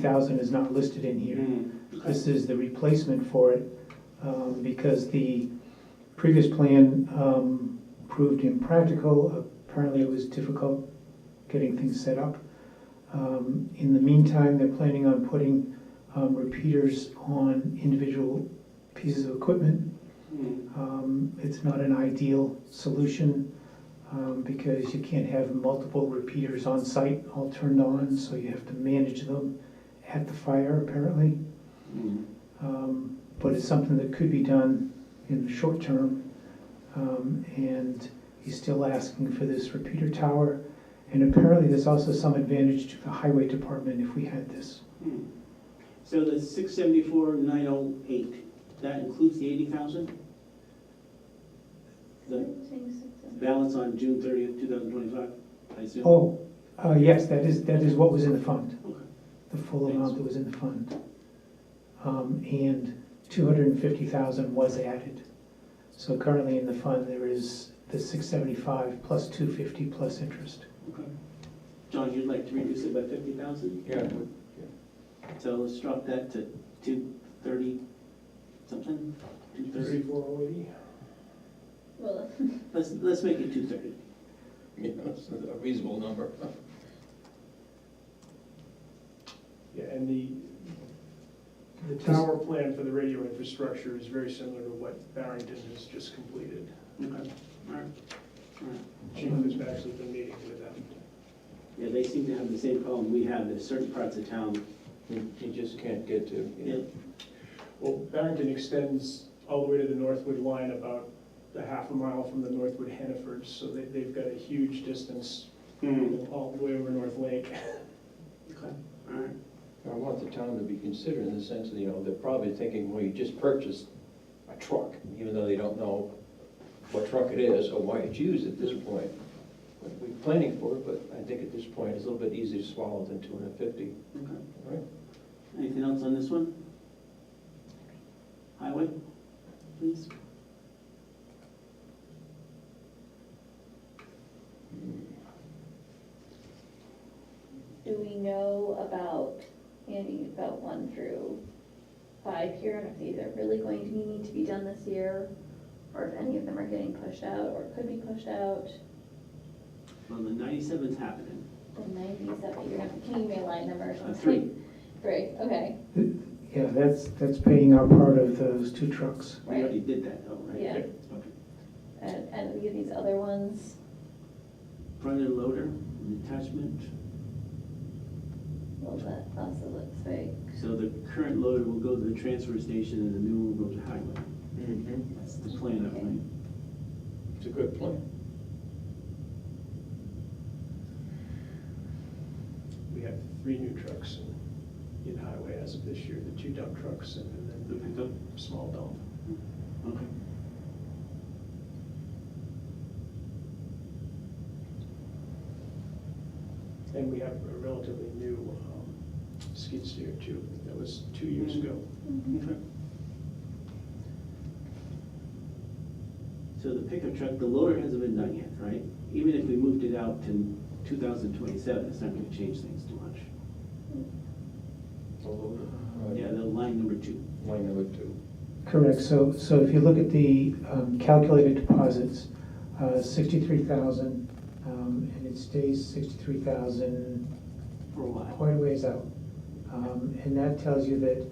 thousand is not listed in here. This is the replacement for it, um, because the previous plan, um, proved impractical. Apparently it was difficult getting things set up. Um, in the meantime, they're planning on putting, um, repeaters on individual pieces of equipment. Um, it's not an ideal solution, um, because you can't have multiple repeaters on site all turned on, so you have to manage them at the fire apparently. Um, But it's something that could be done in the short term. Um, And he's still asking for this repeater tower. And apparently, there's also some advantage to the highway department if we had this. So the six seventy-four, nine oh eight, that includes the eighty thousand? The balance on June thirtieth, two thousand twenty-five, I assume? Oh, uh, yes, that is, that is what was in the fund, Okay. the full amount that was in the fund. Um, And 250,000 was added. So currently in the fund, there is the 675 plus 250 plus interest. Okay. John, you'd like to reduce it by fifty thousand? Yeah, So let's drop that to two thirty something, two thirty? thirty-four oh eighty. Well, Let's, let's make it two thirty. Yeah, that's a reasonable number. Yeah, and the, the tower plan for the radio infrastructure is very similar to what Barrington has just completed. Okay, all right. All right. Chief has actually been meeting with them. Yeah, they seem to have the same problem we have, there's certain parts of town, You you just can't get to, you know, Well, Barrington extends all the way to the Northwood line about a half a mile from the Northwood Hannaford, so they, they've got a huge distance all the way over North Lake. Okay, all right. I want the town to be considered in the sense that, you know, they're probably thinking, well, you just purchased a truck, even though they don't know what truck it is or why it's used at this point. But We're planning for it, but I think at this point, it's a little bit easier to swallow than two hundred and fifty. Okay. Anything else on this one? Highway, please? do we know about, Andy, about one through five here, and if these are really going to need to be done this year? Or if any of them are getting pushed out or could be pushed out? Well, the ninety-seven's happening. The nineties up here, can you give me a line number or Uh, something? Three, Three, okay, Yeah, that's, that's paying our part of those two trucks. we already did that though, right? Yeah. Okay. and, and we get these other ones, Front end loader, detachment, well, that also looks like, so the current loader will go to the transfer station and the new one will go to highway. Mm-hmm. That's the plan, I think. It's a good plan. We have three new trucks in, in highway as of this year, the two dump trucks and The then pickup, the small dump. okay. And we have a relatively new um, skid steer too, that was two years ago. Okay. So the pickup truck, the loader hasn't been done yet, right? Even if we moved it out to two thousand twenty-seven, it's not gonna change things too much. Yeah, the line number two. Line number two. Correct, so, so if you look at the um, calculated deposits, uh, 63,000, um, and it stays 63,000 For a while. quite a ways out. Um, And that tells you that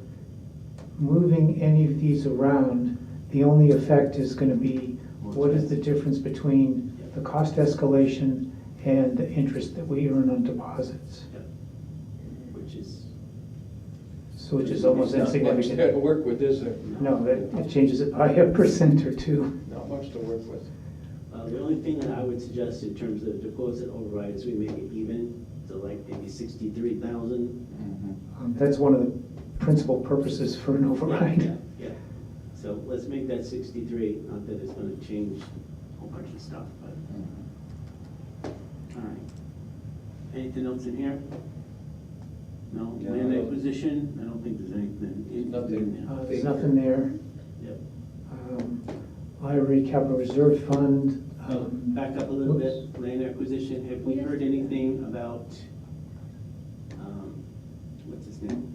moving any of these around, the only effect is going to be, what is the difference between the cost escalation and the interest that we earn on deposits? Which is, So which is almost There's not much insignificant. there to work with, uh, is there? No, that it changes it by a percent or two. Not much to work with. uh, the only thing that I would suggest in terms of deposit override is we make it even, so like maybe sixty-three thousand. Um, That's one of the principal purposes for an override. Yeah, so let's make that sixty-three, not that it's gonna change a whole bunch of stuff, but, all right. Anything else in here? No, Yeah. land acquisition, I don't think there's anything. in- Nothing. in there. Uh, There's nothing there. Yep. Um, Library Capital Reserve Fund. Uh, um, Back up a little whoops. bit, land acquisition, have we Yes. heard anything about, um, what's his understand.